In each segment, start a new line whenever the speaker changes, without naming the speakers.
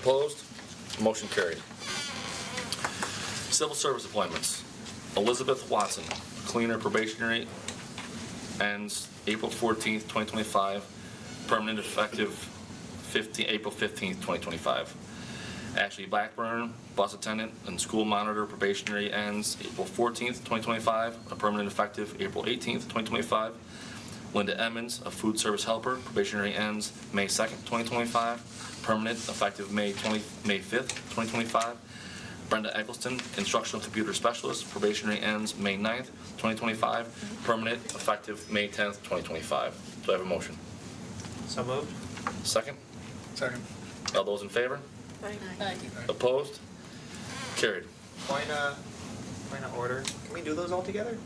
Opposed? Motion carried. Civil service appointments. Elizabeth Watson, cleaner probationary, ends April 14th, 2025, permanent effective 15, April 15th, 2025. Ashley Blackburn, bus attendant and school monitor probationary ends April 14th, 2025, a permanent effective April 18th, 2025. Linda Emmons, a food service helper, probationary ends May 2nd, 2025, permanent effective May 20, May 5th, 2025. Brenda Eggleston, instructional computer specialist, probationary ends May 9th, 2025, permanent effective May 10th, 2025. Do I have a motion?
So moved.
Second?
Second.
All those in favor?
Aye.
Opposed? Carried.
Point of, point of order. Can we do those all together?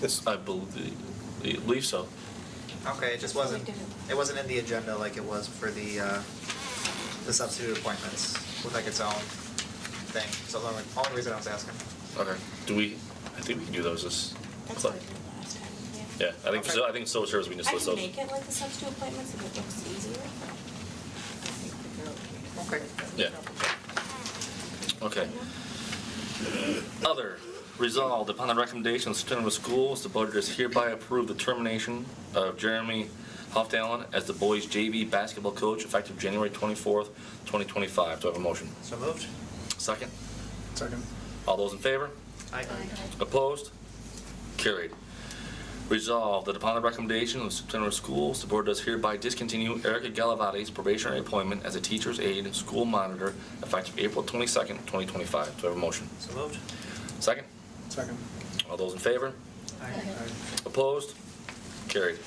This. I believe, believe so.
Okay, it just wasn't,
We did it.
it wasn't in the agenda like it was for the, uh, the substitute appointments with like its own thing. So the only, only reason I was asking.
Okay. Do we, I think we can do those as,
That's what I did last time, yeah.
yeah, I think,
Okay.
I think civil service, we can just
I
list
can
those.
make it like the substitute appointments if it looks easier.
Okay.
Yeah. Okay. Other, resolved upon the recommendation of superintendent of schools, the board does hereby approve the termination of Jeremy Hoffdalen as the boys JV basketball coach effective January 24th, 2025. Do I have a motion?
So moved.
Second.
Second.
All those in favor?
Aye.
Opposed? Carried. Resolved that upon the recommendation of the superintendent of schools, the board does hereby discontinue Erica Galavati's probationary appointment as a teacher's aide and school monitor effective April 22nd, 2025. Do I have a motion?
So moved.
Second?
Second.
All those in favor?
Aye.
Opposed? Carried.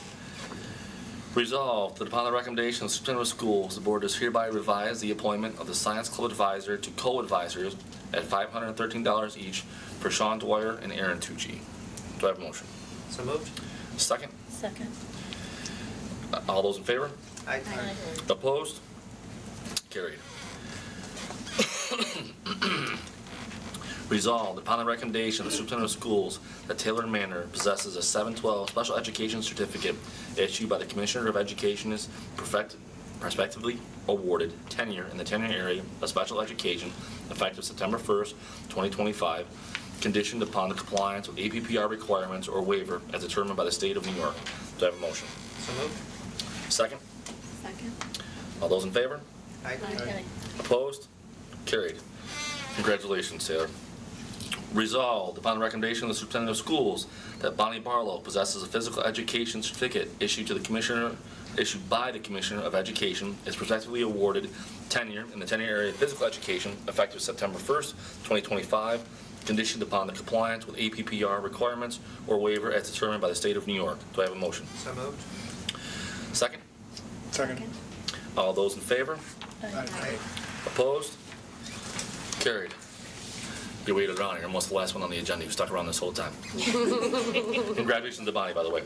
Resolved that upon the recommendation of the superintendent of schools, the board does hereby revise the appointment of the science club advisor to co-advisors at $513 each for Sean Dwyer and Aaron Tucci. Do I have a motion?
So moved.
Second?
Second.
Uh, All those in favor?
Aye.
Opposed? Carried. Resolved upon the recommendation of the superintendent of schools that Taylor Manor possesses a 712 special education certificate issued by the Commissioner of Education is perfect- prospectively awarded tenure in the tenure area of special education effective September 1st, 2025, conditioned upon the compliance with APPR requirements or waiver as determined by the state of New York. Do I have a motion?
So moved.
Second?
Second.
All those in favor?
Aye.
Opposed? Carried. Congratulations, Taylor. Resolved upon the recommendation of the superintendent of schools that Bonnie Barlow possesses a physical education certificate issued to the commissioner, issued by the Commissioner of Education, is prospectively awarded tenure in the tenure area of physical education effective September 1st, 2025, conditioned upon the compliance with APPR requirements or waiver as determined by the state of New York. Do I have a motion?
So moved.
Second?
Second.
All those in favor?
Aye.
Opposed? Carried. You waited around, you're almost the last one on the agenda, you stuck around this whole time. Congratulations to Bonnie, by the way.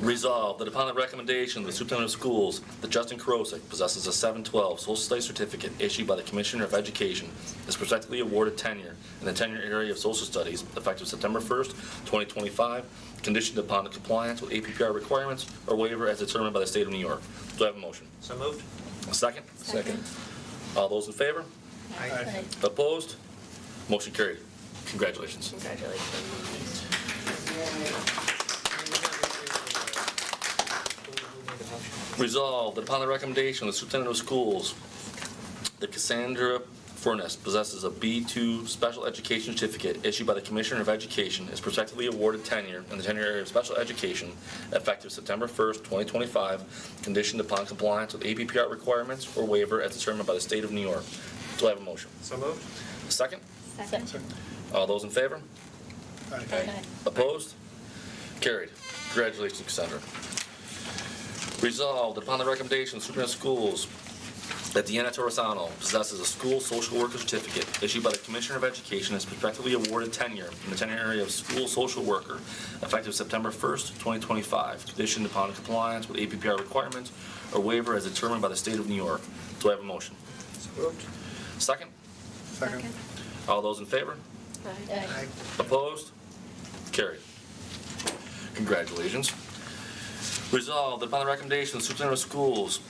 Resolved that upon the recommendation of the superintendent of schools, that Justin Karosik possesses a 712 social studies certificate issued by the Commissioner of Education, is prospectively awarded tenure in the tenure area of social studies effective September 1st, 2025, conditioned upon the compliance with APPR requirements or waiver as determined by the state of New York. Do I have a motion?
So moved.
A second?
Second.
All those in favor?
Aye.
Opposed? Motion carried. Congratulations.
Congratulations.
Resolved that upon the recommendation of the superintendent of schools, that Cassandra Furness possesses a B2 special education certificate issued by the Commissioner of Education is prospectively awarded tenure in the tenure area of special education effective September 1st, 2025, conditioned upon compliance with APPR requirements or waiver as determined by the state of New York. Do I have a motion?
So moved.
Second?
Second.
Second.
All those in favor?
Aye.
Opposed? Carried. Congratulations, Cassandra. Resolved upon the recommendation of superintendent of schools that Deanna Torresano possesses a school social worker certificate issued by the Commissioner of Education as prospectively awarded tenure in the tenure area of school social worker effective September 1st, 2025, conditioned upon compliance with APPR requirements or waiver as determined by the state of New York. Do I have a motion?
So moved.
Second?
Second.
All those in favor?
Aye.
Opposed? Carried. Congratulations. Resolved that upon the recommendation of the superintendent of schools,